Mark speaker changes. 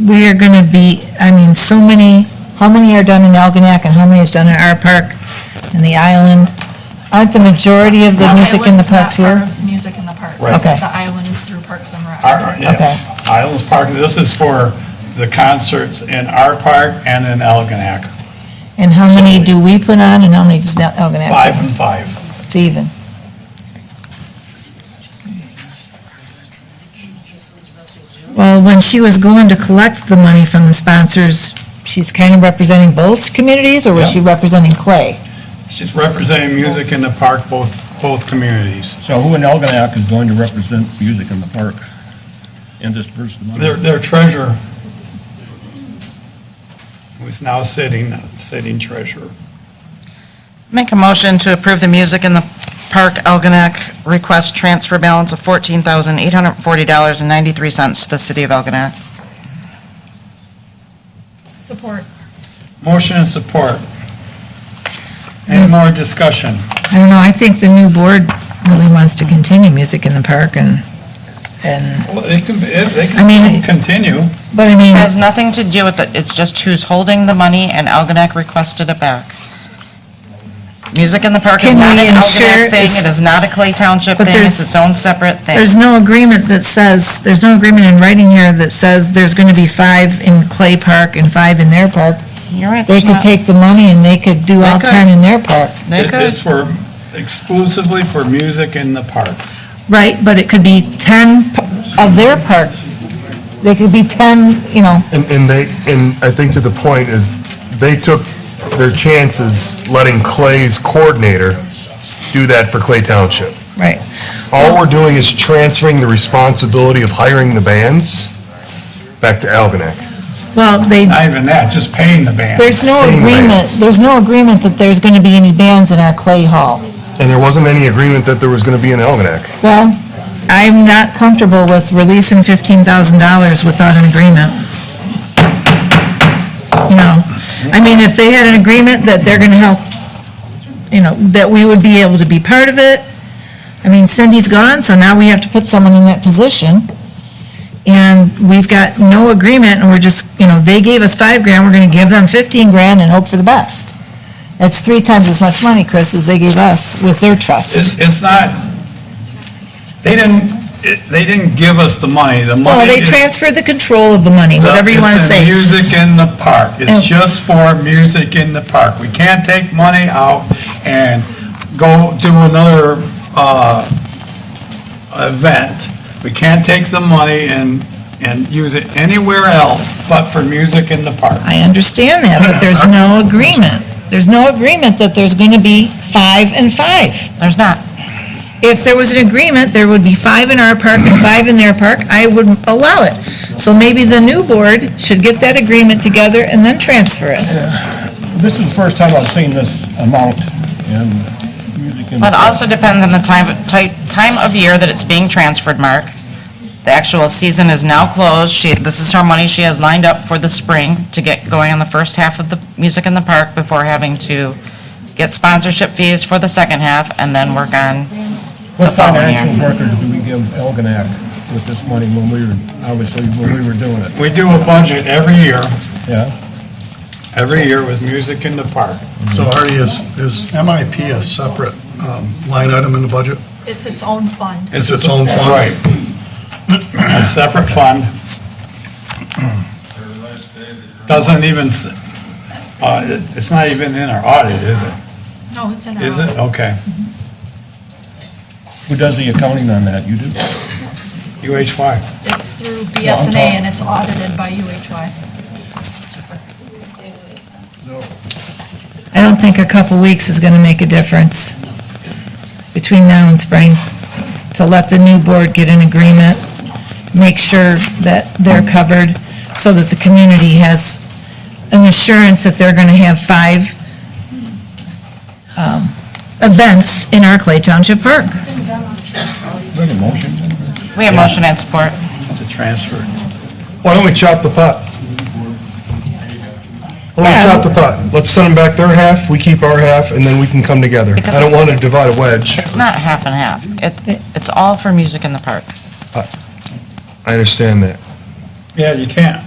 Speaker 1: we are gonna be, I mean, so many, how many are done in Algonac and how many is done in our park and the island? Aren't the majority of the
Speaker 2: Well,
Speaker 1: music in the
Speaker 2: Island's not
Speaker 1: parks here?
Speaker 2: part of Music in the park.
Speaker 3: Right.
Speaker 1: Okay.
Speaker 2: The island is through Parks and Rec.
Speaker 3: Our,
Speaker 1: Okay.
Speaker 3: yeah, Islands Park, this is for the concerts in our park and in Algonac,
Speaker 1: And how many do we put on and how many does not Algonac
Speaker 3: five and five.
Speaker 1: put to even? Well, when she was going to collect the money from the sponsors, she's kind of representing both communities or was
Speaker 3: Yeah.
Speaker 1: she representing Clay?
Speaker 3: She's representing music in the park, both, both communities.
Speaker 4: So who in Elginak is going to represent music in the park and disperse the
Speaker 3: Their,
Speaker 4: money?
Speaker 3: their treasurer, who's now sitting, sitting treasurer.
Speaker 5: Make a motion to approve the Music in the Park Algonac request transfer balance of $14,840.93 to the city of Algonac.
Speaker 2: Support.
Speaker 3: Motion and support.
Speaker 1: Hmm.
Speaker 3: Any more discussion?
Speaker 1: I don't know, I think the new board really wants to continue music in the park and, and,
Speaker 3: Well, they can, they
Speaker 1: I mean-
Speaker 3: can still continue.
Speaker 1: but I mean,
Speaker 5: It has nothing to do with it, it's just who's holding the money, and Algonac requested it back. Music in the Park is
Speaker 1: Can
Speaker 5: not
Speaker 1: we
Speaker 5: an
Speaker 1: ensure
Speaker 5: Algonac thing,
Speaker 1: is-
Speaker 5: it is not a Clay Township
Speaker 1: But
Speaker 5: thing,
Speaker 1: there's-
Speaker 5: it's its own separate thing.
Speaker 1: there's no agreement that says, there's no agreement in writing here that says there's gonna be five in Clay Park and five in their park.
Speaker 5: You're right,
Speaker 1: They
Speaker 5: there's
Speaker 1: could
Speaker 5: not-
Speaker 1: take the money and they could do all
Speaker 5: They could.
Speaker 1: ten in their park.
Speaker 5: They could.
Speaker 3: It's for, exclusively for music in the park.
Speaker 1: Right, but it could be ten p- of their park. They could be ten, you know,
Speaker 6: And, and they, and I think to the point is, they took their chances letting Clay's coordinator do that for Clay Township.
Speaker 1: right.
Speaker 6: All we're doing is transferring the responsibility of hiring the bands back to Algonac.
Speaker 1: Well, they,
Speaker 3: Not even that, just paying the band.
Speaker 1: there's no
Speaker 6: Paying the
Speaker 1: agreement,
Speaker 6: bands.
Speaker 1: there's no agreement that there's gonna be any bands in our Clay Hall.
Speaker 6: And there wasn't any agreement that there was gonna be an Algonac.
Speaker 1: Well, I'm not comfortable with releasing fifteen thousand dollars without an agreement. You know, I mean, if they had an agreement that they're gonna help, you know, that we would be able to be part of it. I mean, Cindy's gone, so now we have to put someone in that position. And we've got no agreement, and we're just, you know, they gave us five grand, we're gonna give them fifteen grand and hope for the best. That's three times as much money, Chris, as they gave us with their trust.
Speaker 3: It's, it's not, they didn't, it- they didn't give us the money, the money.
Speaker 1: Well, they
Speaker 3: is-
Speaker 1: transferred the control of the money,
Speaker 3: the-
Speaker 1: whatever you want to
Speaker 3: It's
Speaker 1: say.
Speaker 3: in music in the park.
Speaker 1: Oh.
Speaker 3: It's just for music in the park. We can't take money out and go do another, uh, event. We can't take the money and, and use it anywhere else but for music in the park.
Speaker 1: I understand that, but there's no agreement. There's no agreement that there's going to be five and five.
Speaker 5: there's not.
Speaker 1: If there was an agreement, there would be five in our park and five in their park, I would allow it. So maybe the new board should get that agreement together and then transfer it.
Speaker 4: This is the first time I've seen this amount in music in the
Speaker 5: But it
Speaker 4: park.
Speaker 5: also depends on the time, ti- time of year that it's being transferred, Mark. The actual season is now closed. She, this is her money she has lined up for the spring to get going on the first half of the Music in the Park before having to get sponsorship fees for the second half and then work on the
Speaker 4: What
Speaker 5: following year.
Speaker 4: financial record do we give Elginak with this money when we were, obviously, when we were doing it?
Speaker 3: We do a budget every year,
Speaker 4: Yeah?
Speaker 3: every year with music in the park.
Speaker 7: So Artie, is, is MIP a separate um, line item in the budget?
Speaker 2: It's its own fund.
Speaker 7: It's its own fund?
Speaker 3: Right. A separate fund. Doesn't even, s- uh, it- it's not even in our audit, is it?
Speaker 2: No, it's in our.
Speaker 3: Is it? Okay.
Speaker 4: Who does the accounting on that? You do?
Speaker 3: UH5.
Speaker 2: It's through BSNA and it's audited by UHY.
Speaker 1: I don't think a couple weeks is going to make a difference between now and spring to let the new board get an agreement, make sure that they're covered, so that the community has an assurance that they're going to have five um, events in our Clay Township Park.
Speaker 4: Do we have a motion?
Speaker 5: We have motion and support.
Speaker 3: To transfer.
Speaker 6: Why don't we chop the pot? Why don't we chop the pot? Let's send them back their half, we keep our half, and then we can come together. I don't want to divide a wedge.
Speaker 5: It's not half and half. It, it's all for Music in the Park.
Speaker 6: I understand that.
Speaker 3: Yeah, you can't.